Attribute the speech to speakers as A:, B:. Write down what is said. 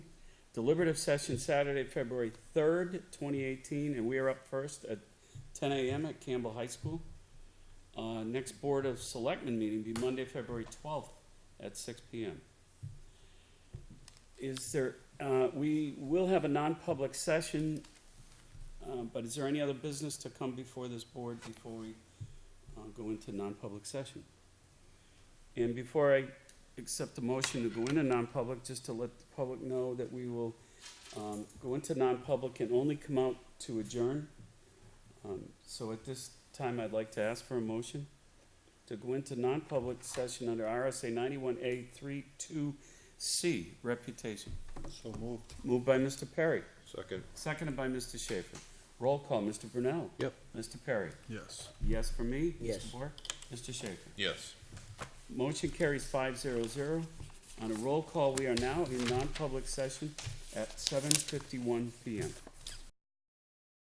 A: deliberative session Saturday, February third, twenty eighteen, and we are up first at ten AM at Campbell High School. Uh, next Board of Selectmen meeting be Monday, February twelfth at six PM. Is there, uh, we will have a non-public session, uh, but is there any other business to come before this board before we, uh, go into non-public session? And before I accept the motion to go into non-public, just to let the public know that we will um, go into non-public and only come out to adjourn. Um, So at this time, I'd like to ask for a motion to go into non-public session under RSA ninety-one A three two C, reputation.
B: So moved.
A: Moved by Mr. Perry,
B: Second.
A: seconded by Mr. Schaefer. Roll call, Mr. Brunel.
B: Yep.
A: Mr. Perry.
B: Yes.
A: Yes for me?
C: Yes.
A: Mr. Bork? Mr. Schaefer?
B: Yes.
A: Motion carries five zero zero. On a roll call, we are now in non-public session at seven fifty-one PM.